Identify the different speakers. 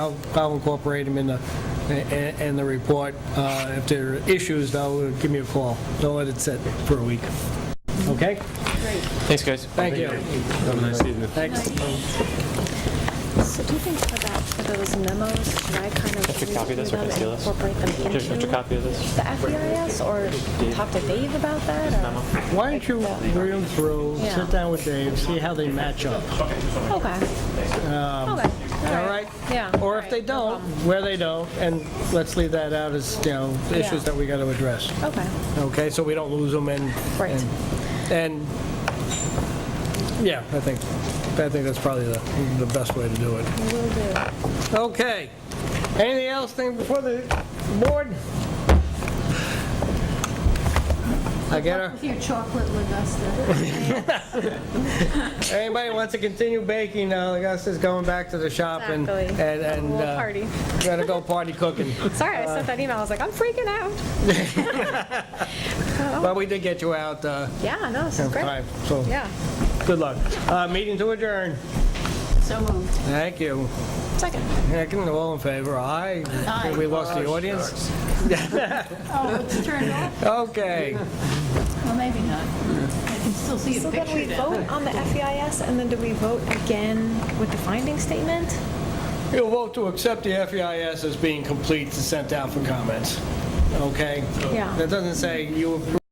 Speaker 1: I'll, I'll incorporate them in the, in in the report. Uh, If there are issues, though, give me a call. Don't let it sit for a week. Okay?
Speaker 2: Thanks, guys.
Speaker 1: Thank you.
Speaker 2: Have a nice evening.
Speaker 1: Thanks.
Speaker 3: So do you think for that, for those memos, should I kind of
Speaker 2: you copy
Speaker 3: review
Speaker 2: this or can I
Speaker 3: them
Speaker 2: steal
Speaker 3: and
Speaker 2: this?
Speaker 3: incorporate them
Speaker 2: Here's
Speaker 3: into
Speaker 2: extra copy of this.
Speaker 3: the FEIS, or talk to Dave about that? or-
Speaker 1: Why don't you read them through, sit down with Dave, see how they match up,
Speaker 3: Okay. Okay.
Speaker 1: all right?
Speaker 3: Yeah.
Speaker 1: Um, Or
Speaker 3: all
Speaker 1: if they
Speaker 3: right, no
Speaker 1: don't,
Speaker 3: problem.
Speaker 1: where they don't, and let's leave that out as, you know, issues
Speaker 3: Yeah.
Speaker 1: that we got to address.
Speaker 3: Okay,
Speaker 1: Okay, so we don't lose them and.
Speaker 3: Right.
Speaker 1: And, and, yeah, I think, I think that's probably the, the best way to do it.
Speaker 3: will do.
Speaker 1: Okay. Anything else thing before the board? I get her.
Speaker 4: With uh, your chocolate Augusta.
Speaker 1: Anybody wants to continue baking, uh, I guess is going back to the shop and, and,
Speaker 3: Exactly.
Speaker 1: and.
Speaker 3: We'll
Speaker 1: uh,
Speaker 3: party.
Speaker 1: Gotta go party cooking.
Speaker 3: Sorry, I sent that email, I was like, I'm freaking out.
Speaker 1: But we did get you out, uh,
Speaker 3: Yeah, no, this
Speaker 1: in
Speaker 3: is great.
Speaker 1: time, so,
Speaker 3: Yeah,
Speaker 1: good luck. Uh, meeting to adjourn.
Speaker 4: So um, moved.
Speaker 1: Thank you.
Speaker 3: second.
Speaker 1: Second, all in favor, aye.
Speaker 4: Aye.
Speaker 1: We lost the audience?
Speaker 4: Oh, it's turned off?
Speaker 1: Okay.
Speaker 4: Well, maybe not. I can still see a
Speaker 3: So then we
Speaker 4: picture down
Speaker 3: vote on the FEIS, and then do we vote again with the finding statement?
Speaker 1: You'll vote to accept the E FEIS as being complete and sent out for comments, okay?
Speaker 3: Yeah.
Speaker 1: That doesn't say you approve